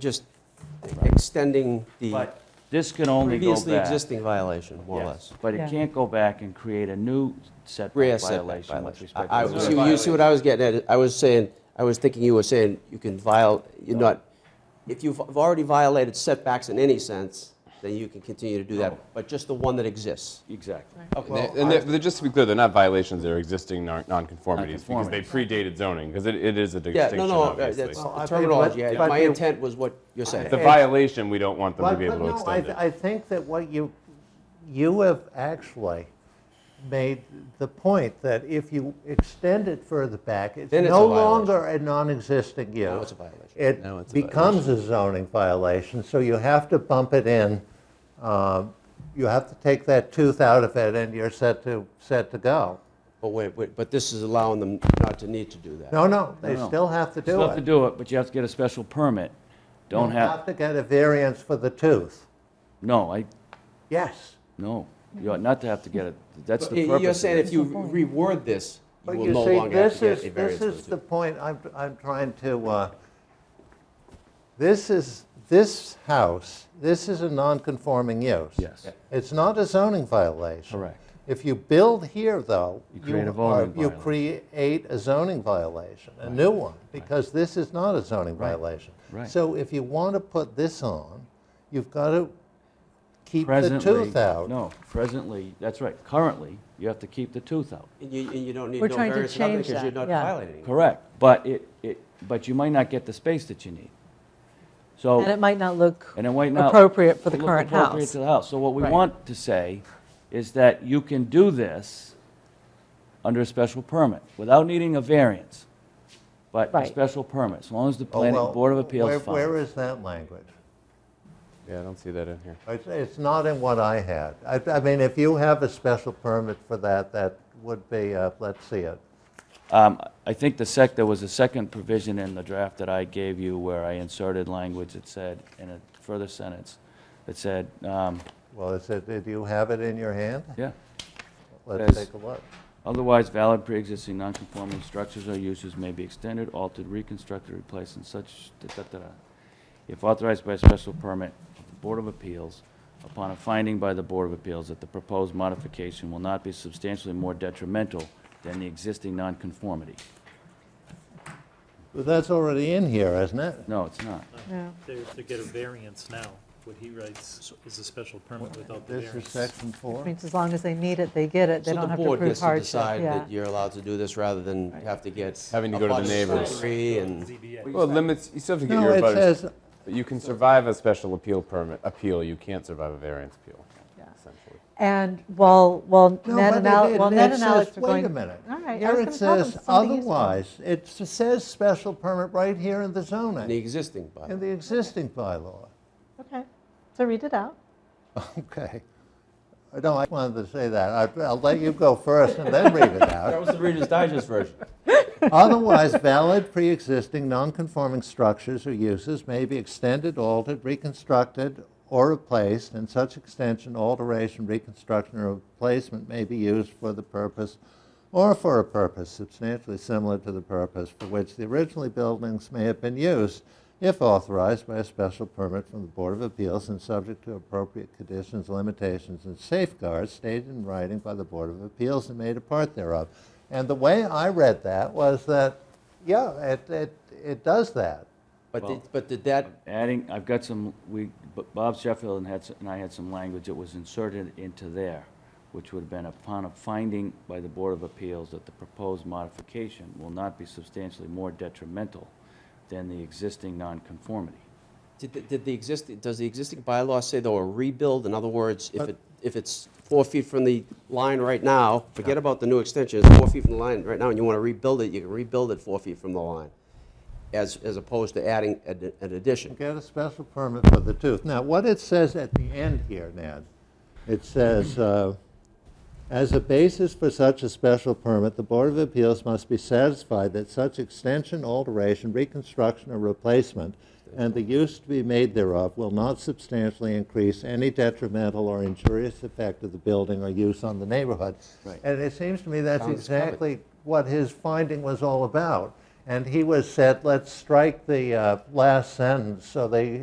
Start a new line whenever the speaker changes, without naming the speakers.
just extending the
But this can only go
previously
back.
existing violation, more or
Yes,
less.
But it
Yeah.
can't go back and create a new
Rear
setback
setback
violation with
violation.
respect
I- I-
to
see-
the...
You see what I was getting at? I was saying, I was thinking you were saying you can viol, you're not, if you've already violated setbacks in any sense, then you can continue to do that, but just the one that exists.
Exactly.
And they- And they're- they're- just to be clear, they're not violations, they're existing non- nonconformities, because they predated zoning, because it it is a
Yeah, no,
distinction,
no, uh,
obviously.
that's
Well, I
the
think-
terminology.
but-
I-
but
My
you-
intent was what you're saying.
The violation, we don't want them to
But,
be
but
able to
no, I,
extend
th-
it.
I think that what you, you have actually made the point that if you extend it further back, it's
Then it's a
no
violation.
longer a non-existing use.
it's a violation.
It
Now it's a
becomes a zoning violation, so you have to bump it in. um, You have to take that tooth out of it, and you're set to, set to go.
But wait, wait, but this is allowing them not to need to do that.
No, no, they
No, no.
still have to do it.
Still have to do it, but you have to get a special permit. Don't
You
have,
to get a variance for the tooth.
no, I,
Yes.
no, you ought not to have to get it. That's
But
the
y-
purpose.
You're
of
saying
it.
if you reword this, you
But
will
you
no
see,
longer have
this
to get
is-
a variance.
This is
for
the
the
point I'm, I'm trying to, uh, this is, this house, this is a non-conforming use.
Yes. Yeah.
It's not a zoning violation.
Correct.
If you build here, though.
You create a
are-
zoning
You
violation.
create a zoning violation, a new one, because this is not a zoning violation.
Right.
So if you want to put this on, you've got to keep the
Presently-
tooth out.
No, presently, that's right. Currently, you have to keep the tooth out.
And you, and you don't need
We're
no
trying to
variance or nothing
change
because you're
that,
not
yeah.
violating. it.
Correct, but it, it, but you might not get the space that you need. So.
Oh.
And it might not look
And it might not.
appropriate for the
look
current
Appropriate
house.
to the house. So what we
Right.
want to say is that you can do this under a special permit without needing a variance, but a
Right.
special permit, as long as the
Oh,
planning
well,
board of
where-
appeals
Where
finds.
is that language?
Yeah, I don't see that in here.
It's, it's not in what I had. I, I mean, if you have a special permit for that, that would be, uh, let's see it.
Um, I think the sec, there was a second provision in the draft that I gave you where I inserted language that said, in a further sentence, that said, um,
Well, is it, do you have it in your hand?
yeah,
Let's
Yes.
take a look.
Otherwise, valid pre-existing non-conforming structures or uses may be extended, altered, reconstructed, replaced, and such, da, da, da, da, if authorized by special permit of the Board of Appeals, upon a finding by the Board of Appeals that the proposed modification will not be substantially more detrimental than the existing nonconformity.
But that's already in here, isn't it?
No, it's not.
To, to get a variance now, what he writes is a special permit without the
This is
variance.
section
I
four.
mean, as long as they need it, they get it, they
So the
don't have to
board
prove
gets to
hardship,
decide
yeah.
that you're allowed to do this rather than have to get.
Having to go to the
abutters
neighbors.
agree and,
ZBA.
Well, limits, you still have to get
No,
your
it
abutters.
says,
But you can survive a special appeal permit, appeal, you can't survive a variance appeal, essentially.
And while, while
no,
Ned
but
and Al-
it-
while
it-
Ned
it
and
says-
Alex were going.
Wait a minute.
All right, I
Here
was
it
gonna tell them
says,
something useful.
otherwise, it s- says special permit right here in the
and the
zoning,
existing
in
bylaw.
the existing bylaw.
Okay, so read it out.
Okay. No, I wanted to say that. I- I'll let you go first and then read it out.
That was the Reader's Digest version.
Otherwise, valid pre-existing non-conforming structures or uses may be extended, altered, reconstructed, or replaced, and such extension, alteration, reconstruction, or replacement may be used for the purpose or for a purpose substantially similar to the purpose for which the originally buildings may have been used, if authorized by a special permit from the Board of Appeals and subject to appropriate conditions, limitations, and safeguards stated in writing by the Board of Appeals and made a part thereof. And the way I read that was that, yeah, it, it, it does that.
But, did- but did that,
Adding, I've got some, we, B- Bob Sheffield and had, s- and I had some language that was inserted into there, which would have been upon a finding by the Board of Appeals that the proposed modification will not be substantially more detrimental than the existing nonconformity.
did, the- did the existing, does the existing bylaw say though a rebuild? In other words, if it, if it's four feet from the line right now, forget about the new extension, it's four feet from the line right now and you want to rebuild it, you can rebuild it four feet from the line. As, as opposed to adding an an addition.
Get a special permit for the tooth. Now, what it says at the end here, Ned, it says, uh, as a basis for such a special permit, the Board of Appeals must be satisfied that such extension, alteration, reconstruction, or replacement, and the use to be made thereof will not substantially increase any detrimental or injurious effect of the building or use on the neighborhood.
Right.
And it seems to me that's
Sounds covered.
exactly what his finding was all about. And he was said, let's strike the uh, last sentence, so they